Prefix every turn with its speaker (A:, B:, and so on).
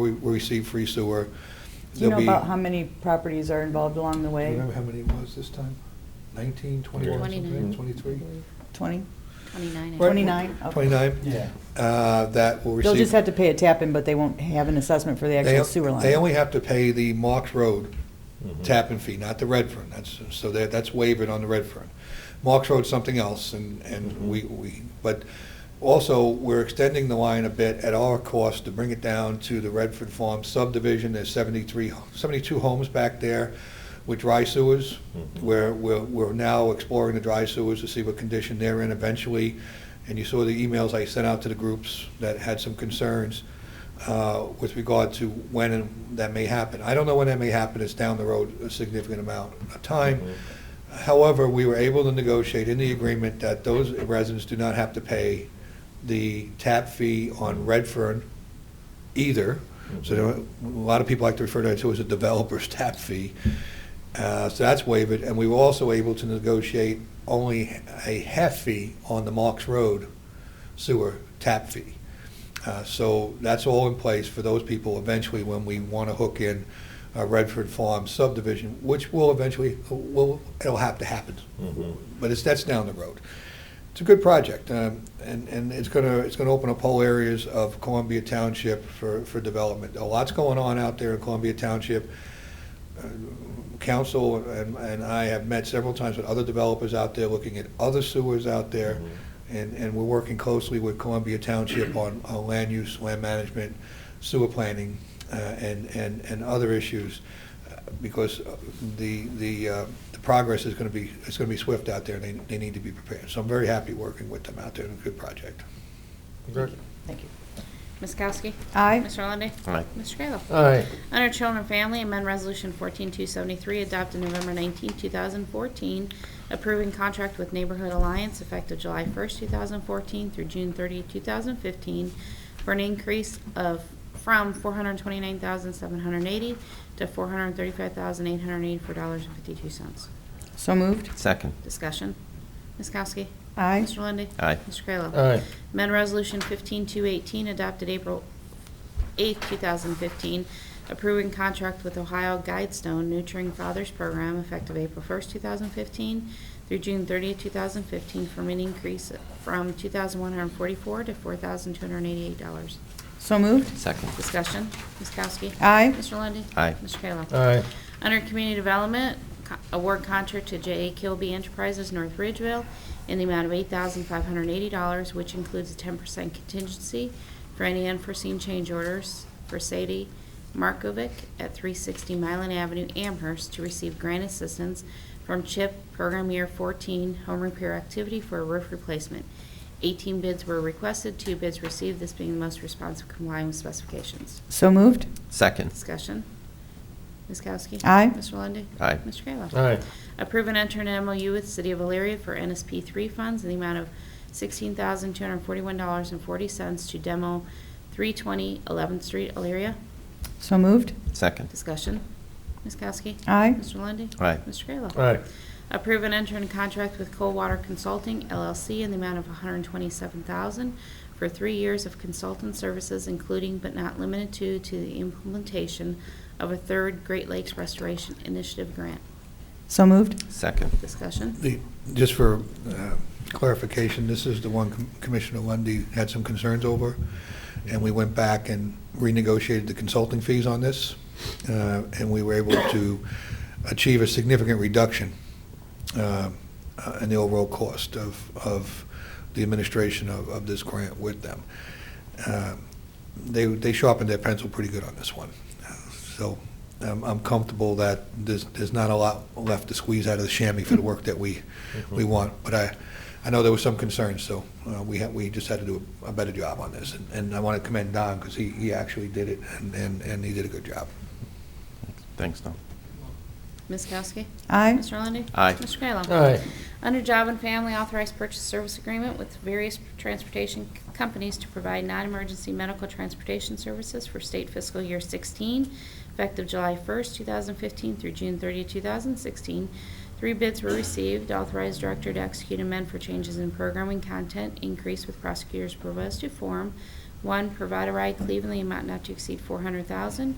A: we we receive free sewer.
B: Do you know
A: There'll be-
B: about how many properties are involved along
A: Do
B: the
A: you
B: way?
A: remember how many it was this time? 19, 21, something,
C: 29.
A: 23?
B: 20?
C: 29. I
A: Right.
C: think.
B: 29? Okay.
A: 29?
D: Yeah.
A: uh, That will receive.
B: They'll just have to pay a tap-in, but they won't have an assessment for the
A: They-
B: actual sewer line.
A: They only have to pay the Marks Road tap-in fee, not the Redfern. That's, so that- that's waived on the Redfern. Marks Road's something else, and, and we, we, but also, we're extending the line a bit at our cost to bring it down to the Redford Farm subdivision. There's 73, 72 homes back there with dry sewers.
E: Mhm.
A: We're, we're we're now exploring the dry sewers to see what condition they're in eventually. And you saw the emails I sent out to the groups that had some concerns uh, with regard to when and that may happen. I don't know when that may happen, it's down the road a significant amount of time. However, we were able to negotiate in the agreement that those residents do not have to pay the tap fee on Redfern either. So there are- a lot of people like to refer to it to as a developer's tap fee. Uh, So that's waived, and we were also able to negotiate only a half fee on the Marks Road sewer tap fee. Uh, So that's all in place for those people eventually when we want to hook in uh, Redford Farm subdivision, which will eventually, will, it'll have to happen.
E: Mhm.
A: But it's, that's down the road. It's a good project, um, and, and it's going to, it's going to open up whole areas of Columbia Township for, for development. A lot's going on out there in Columbia Township. Uh, Council and, and I have met several times with other developers out there, looking at other sewers out there. And, and we're working closely with Columbia Township on, on land use, land management, sewer planning, uh, and, and, and other issues, uh, because uh, the, the, uh, the progress is gonna be, it's gonna be swift out there, and they, they need to be prepared. So I'm very happy working with them out there, and a good project.
B: Thank you.
C: Ms. Kowski?
B: Aye.
C: Mr. Lundey?
E: Aye.
C: Mr. Kayla?
D: Aye.
C: Under Children and Family, amend Resolution 14273, adopted November 19, 2014, approving contract with Neighborhood Alliance effective July 1st, 2014 through June 30, 2015, for an increase of, from $429,780 to $435,884.52.
B: So moved?
E: Second.
C: Discussion. Ms. Kowski?
B: Aye.
C: Mr. Lundey?
E: Aye.
C: Mr. Kayla?
D: Aye.
C: Amendment Resolution 15218, adopted April 8, 2015, approving contract with Ohio Guidestone Nurturing Fathers Program effective April 1, 2015 through June 30, 2015, for an increase from $2,144 to $4,288.
B: So moved?
E: Second.
C: Discussion, Ms. Kowski.
B: Aye.
C: Mr. Lundy.
E: Aye.
C: Mr. Kayla.
D: Aye.
C: Under Community Development, co- award contract to J.A. Kilby Enterprises, North Ridgeville, in the amount of $8,580, which includes a 10% contingency for any unforeseen change orders for Sadie Markovic at 360 Mylan Avenue, Amherst, to receive grant assistance from CHIP Program Year 14 Home Repair Activity for a roof replacement. 18 bids were requested, two bids received, this being the most responsive complying with specifications.
B: So moved?
E: Second.
C: Discussion. Ms. Kowski?
B: Aye.
C: Mr. Lundey?
E: Aye.
C: Mr. Kayla?
D: Aye.
C: Approve and enter an MOU with City of Elyria for NSP three funds in the amount of sixteen thousand two hundred forty-one dollars and forty cents to demo three twenty Eleventh Street, Elyria.
B: So moved?
E: Second.
C: Discussion. Ms. Kowski?
B: Aye.
C: Mr. Lundey?
E: Aye.
C: Mr. Kayla?
D: Aye.
C: Approve and enter in contract with Coldwater Consulting LLC in the amount of $127,000 for three years of consultant services, including but not limited to, to the implementation of a third Great Lakes Restoration Initiative grant.
B: So moved?
E: Second.
C: Discussion?
A: The, just for uh, clarification, this is the one Com- Commissioner Lundy had some concerns over, and we went back and renegotiated the consulting fees on this, uh, and we were able to achieve a significant reduction uh, uh, in the overall cost of, of the administration of, of this grant with them. Um, They, they sharpened their pencil pretty good on this one. So um, I'm comfortable that there's, there's not a lot left to squeeze out of the chamois for the work that we, we want. But I, I know there was some concern, so uh, we had, we just had to do a better job on this. And- And I want to commend Don, because he, he actually did it, and, and and he did a good job.
E: Thanks, Tom.
C: Ms. Kowski?
B: Aye.
C: Mr. Lundey?
E: Aye.
C: Mr. Kayla?
D: Aye.
C: Under Job and Family, authorized purchase service agreement with various transportation c- companies to provide non-emergency medical transportation services for state fiscal year 16, effective July 1st, 2015 through June 30, 2016. Three bids were received, authorized director to execute amend for changes in programming content, increase with prosecutor's proposed to form One, provide a ride Cleveland, the amount not to exceed 400000